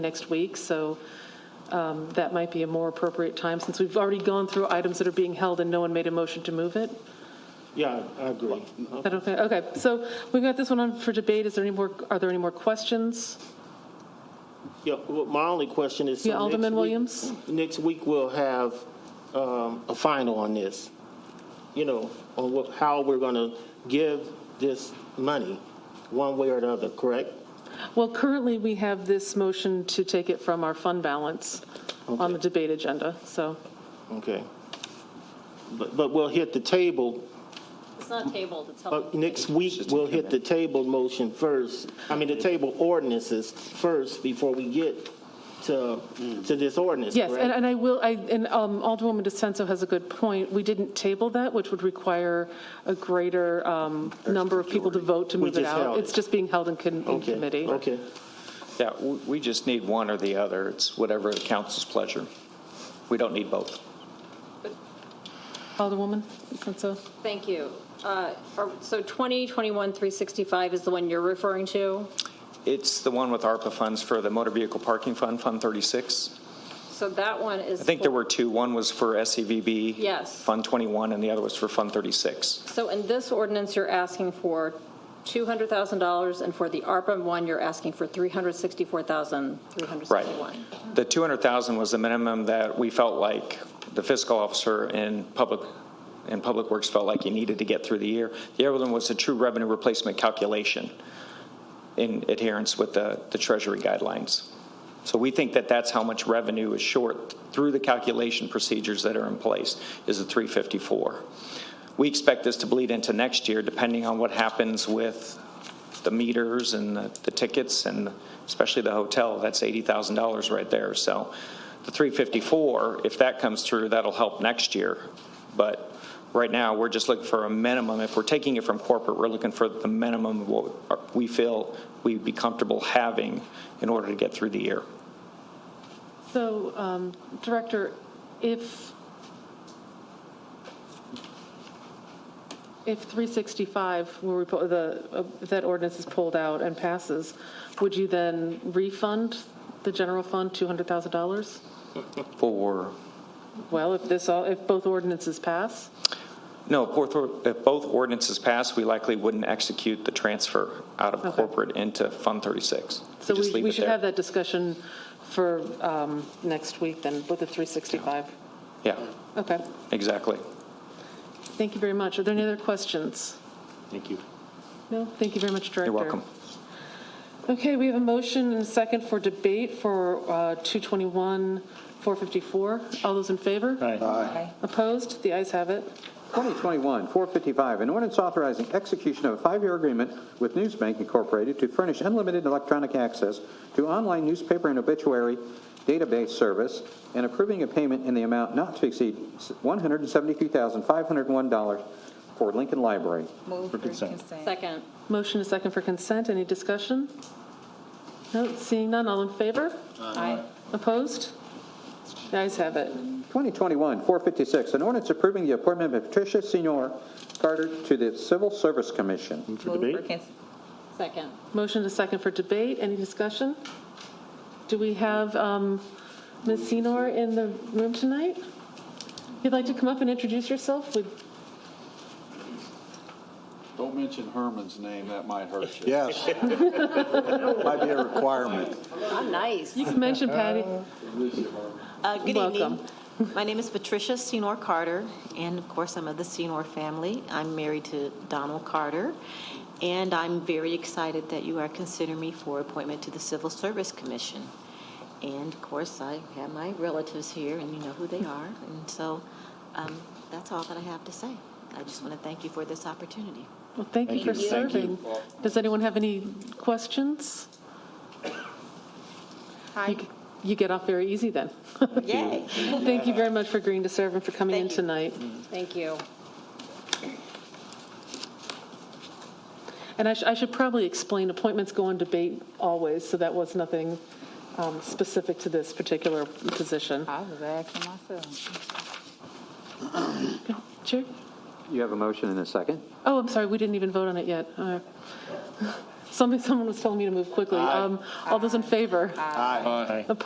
next week, so um, that might be a more appropriate time, since we've already gone through items that are being held and no one made a motion to move it. Yeah, I agree. Is that okay? Okay, so we've got this one on for debate. Is there any more, are there any more questions? Yeah, well, my only question is. so Yeah, next Alderman week- Williams? Next week, we'll have um, a final on this, you know, on what, how we're going to give this money, one way or the other, correct? Well, currently, we have this motion to take it from our fund balance on Okay. the debate agenda, so. Okay. But, but we'll hit the table, It's not tabled, it's held. but next week, we'll hit the table motion first, I mean, the table ordinances first before we get to, to this ordinance, Yes, and, correct? and I will, I, and um, Alderwoman DeSenso has a good point. We didn't table that, which would require a greater um, number of people to vote to We move it just held out. it. It's just being held in con- in Okay, committee. Okay, Yeah, w- we just need one or the other. It's whatever the council's pleasure. We don't need both. Alderwoman DeSenso? Thank you. Uh, are- So 2021-365 is the one you're referring to? It's the one with ARPA funds for the Motor Vehicle Parking Fund, Fund 36. So that one is. I think there were two. One was for SEVB. Yes. Fund 21, and the other was for Fund 36. So in this ordinance, you're asking for $200,000, and for the ARPA one, you're asking for Right. $364,361. The 200,000 was the minimum that we felt like the fiscal officer and public, and Public Works felt like you needed to get through the year. The other one was a true revenue replacement calculation in adherence with the the Treasury guidelines. So we think that that's how much revenue is short through the calculation procedures that are in place, is the 354. We expect this to bleed into next year, depending on what happens with the meters and the the tickets, and especially the hotel, that's $80,000 right there. So the 354, if that comes through, that'll help next year. But right now, we're just looking for a minimum. If we're taking it from corporate, we're looking for the minimum of what we feel we'd be comfortable having in order to get through the year. So, um, Director, if, if 365, were repo- the, uh, if that ordinance is pulled out and passes, would you then refund the general fund $200,000? For, Well, if this, all if both ordinances pass? no, if both- if both ordinances pass, we likely wouldn't execute the transfer out of Okay. corporate into Fund 36. So just we leave we it should there. have that discussion for um, next week then, with the 365. Yeah, Okay, exactly. thank you very much. Are there any other questions? thank you. No, thank you very much, Director. You're welcome. Okay, we have a motion and a second for debate for uh, 221, 454. All those in favor? Opposed? The ayes have it. 2021-455, an ordinance authorizing execution of a five-year agreement with Newsbank Incorporated to furnish unlimited electronic access to online newspaper and obituary database service and approving a payment in the amount not to exceed $173,501 for Lincoln Library. Move for consent. Second, Motion and a second for consent. Any discussion? No, seeing none. All in favor? aye. Opposed? The ayes have it. 2021-456, an ordinance approving the appointment of Patricia Senor Carter to the Civil Service Commission. Move for consent. Second, Motion and a second for debate. Any discussion? Do we have um, Ms. Senor in the room tonight? If you'd like to come up and introduce yourself, we'd Don't mention Herman's name, that might hurt you. Yes. Might be a requirement. I'm nice. you can mention Patty. Uh, Good evening. Welcome. My name is Patricia Senor Carter, and of course, I'm of the Senor family. I'm married to Donald Carter, and I'm very excited that you are considering me for appointment to the Civil Service Commission. And of course, I have my relatives here, and you know who they are, and so um, that's all that I have to say. I just want to thank you for this opportunity. Well, thank you for serving. Does anyone have any questions? Hi. You- You get off very easy then. Yay. Thank you very much for agreeing to serve and for coming in Thank you. tonight. thank you. And I sh- I should probably explain, appointments go on debate always, so that was nothing um, specific to this particular position. I was asking myself. Chair? You have a motion and a second? Oh, I'm sorry, we didn't even vote on it yet. Uh, Somebody, someone was telling me to move quickly. Um, All those in favor? Aye.